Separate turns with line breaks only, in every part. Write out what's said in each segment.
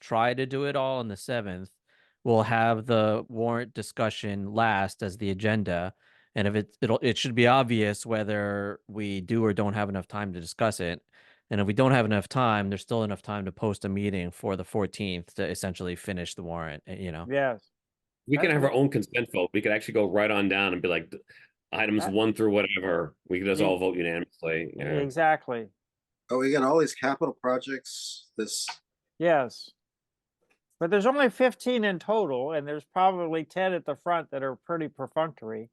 try to do it all on the seventh. We'll have the warrant discussion last as the agenda. And if it's, it'll, it should be obvious whether we do or don't have enough time to discuss it. And if we don't have enough time, there's still enough time to post a meeting for the fourteenth to essentially finish the warrant, eh, you know?
Yes.
We can
I-
have our own consent vote. We could actually go right on down and be like, th- items
I-
one through whatever, we could just
Yeah.
all vote unanimously. yeah.
Exactly.
Oh, we got all these capital projects, this,
Yes. But there's only fifteen in total, and there's probably ten at the front that are pretty perfunctory.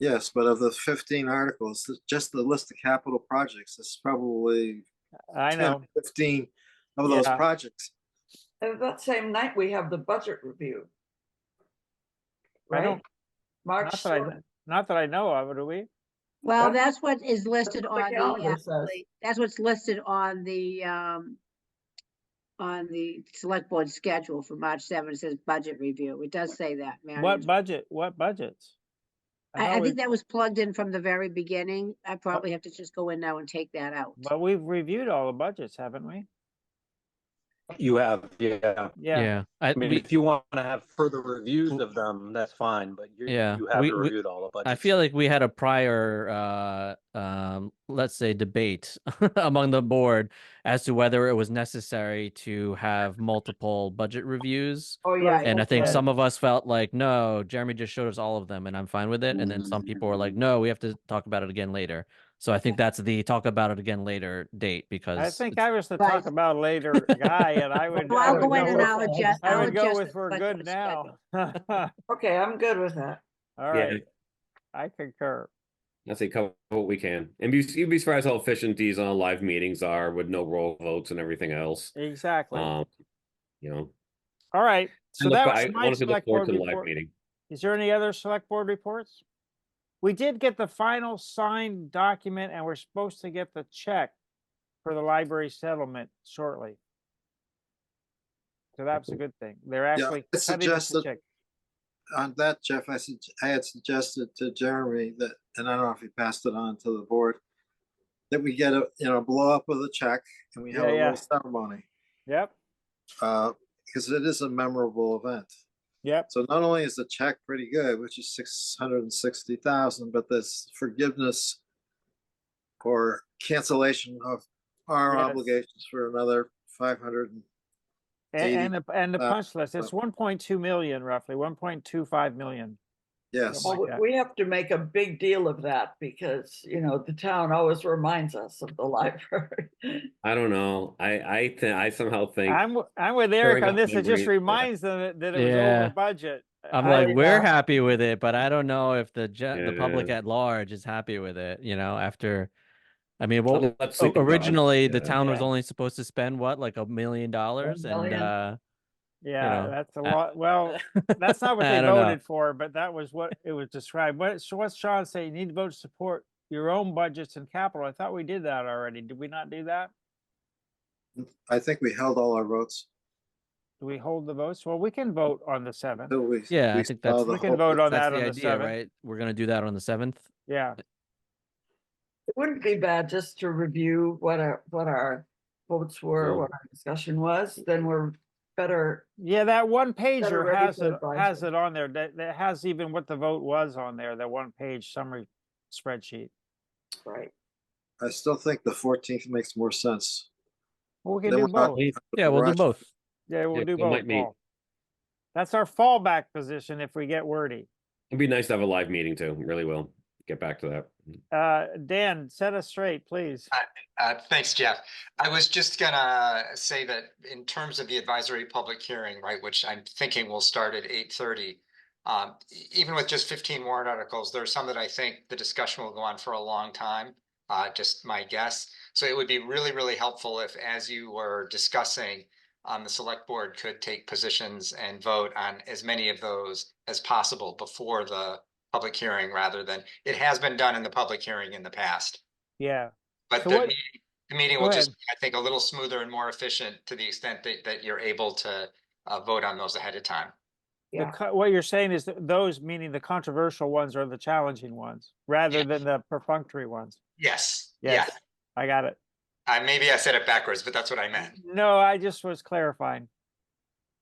yes, but of the fifteen articles, th- just the list of capital projects, this is probably
I
10,
know.
fifteen of those
Yeah.
projects.
And that same night, we have the budget review.
I don't,
Right? March
not that I,
seventh.
not that I know of, do we?
Well,
What?
that's what is listed
what the
on the,
calendar
uh,
says.
that's what's listed on the, um, on the select board schedule for March seventh, it says budget review. It does say that, Marion.
What budget, what budgets?
I, I
thought we-
think that was plugged in from the very beginning. I probably have to just go in now and take that out.
But we've reviewed all the budgets, haven't we?
You have, yeah.
Yeah,
I,
I mean,
we-
if you want to have further reviews of them, that's fine, but you,
Yeah,
you haven't
we- we-
reviewed all of them.
I feel like we had a prior, uh, um, let's say debate among the board as to whether it was necessary to have multiple budget reviews.
Oh, yeah.
And I think
okay.
some of us felt like, no, Jeremy just showed us all of them and I'm fine with it. And then
Mm-hmm.
some people were like, no, we have to talk about it again later. So I think that's the talk about it again later date because
I think
it's-
I was the talk
Right.
about later guy, and I would.
Well,
I
I'll
would
go in
go
and
with-
I'll
I
adjust.
I
I'll
would go
adjust
with
the
we're
select
good
board
now.
schedule.
All
Okay, I'm good with that.
right, I concur.
I say cover what we can. And be, you'd be surprised how efficient these on live meetings are with no roll votes and everything else.
Exactly. All
Um, you know.
right, so
I look-
that
I
was my
honestly look
select
forward
board
to the live
report.
meeting.
Is there any other select board reports? We did get the final signed document and we're supposed to get the check for the library settlement shortly. So that's a good thing. They're actually
I
cutting us the
suggested-
check.
On that, Jeff, I said, I had suggested to Jeremy that, and I don't know if he passed it on to the board, that we get a, you know, blow up of the check and we have
Yeah,
a
yeah.
little ceremony,
Yep,
uh, because it is a memorable event.
yep,
So not only is the check pretty good, which is six hundred and sixty thousand, but this forgiveness or cancellation of our
Yes.
obligations for another five hundred and
A-
Eighty-
and, the and the
uh,
punch list, it's one point two million roughly, one point two five million.
yes.
like
Well,
that.
we have to make a big deal of that because, you know, the town always reminds us of the library.
I don't know. I, I, thi- I somehow think,
I'm, w- I'm with Eric
Carrying
on
up
this, it just
memories, yeah.
reminds them that- that it was
Yeah.
over budget.
I'm
I- uh
like, we're happy with it, but I don't know if the gen- the public
Yeah.
at large is happy with it, you know, after, I mean, what,
well, let's
O-
think about it.
Originally, the
Yeah.
town was
Yeah.
only supposed to spend what, like a million dollars, and
million.
uh,
Yeah,
know,
that's a
I-
lot, well. That's not what
I
they
don't know.
voted for, but that was what it was described. What, so what's Sean say? You need to vote to support your own budgets and capital. I thought we did that already. Did we not do that?
I think we held all our votes
Do we hold the votes? Well, we can vote on the seventh.
till we.
Yeah, I
we
think that's-
saw the
We can
whole-
vote on that
that's
on
the
the
idea,
seventh.
right? We're gonna do that on the seventh.
Yeah,
It wouldn't be bad just to review what our, what our votes were,
Well-
what our discussion was, then we're better.
yeah, that one
Better
pager
ready
has
for
it, has
advisory.
it on there. That, that has even what the vote was on there, that one page summary spreadsheet.
Right.
I still think the fourteenth makes more sense.
Well, We can
Then
do
we're not-
both.
Yeah, we'll do
Rush.
both.
Yeah, we'll
Yeah,
do
we
both.
might meet.
Paul. That's our fallback position if we get wordy.
It'd be nice to have a live meeting too. Really will. Get back to that.
Uh, Dan, set us straight, please.
Uh, Thanks, Jeff. I was just gonna say that in terms of the advisory public hearing, right, which I'm thinking will start at eight thirty. Um, e- even with just fifteen warrant articles, there are some that I think the discussion will go on for a long time, uh, just my guess. So it would be really, really helpful if, as you were discussing, um, the select board could take positions and vote on as many of those as possible before the public hearing, rather than, it has been done in the public hearing in the past.
Yeah.
But
So
the
what-
meeting, the meeting
Go
will just, be, I think, a little smoother and more efficient to the extent that, that you're able to uh, vote on those ahead of time.
The,
Yeah.
co- what you're saying is that those, meaning the controversial ones are the challenging ones, rather
Yeah.
than the perfunctory ones.
Yes, yeah,
Yes. I got it.
I, maybe I said it backwards, but that's what I meant.
No, I just was clarifying.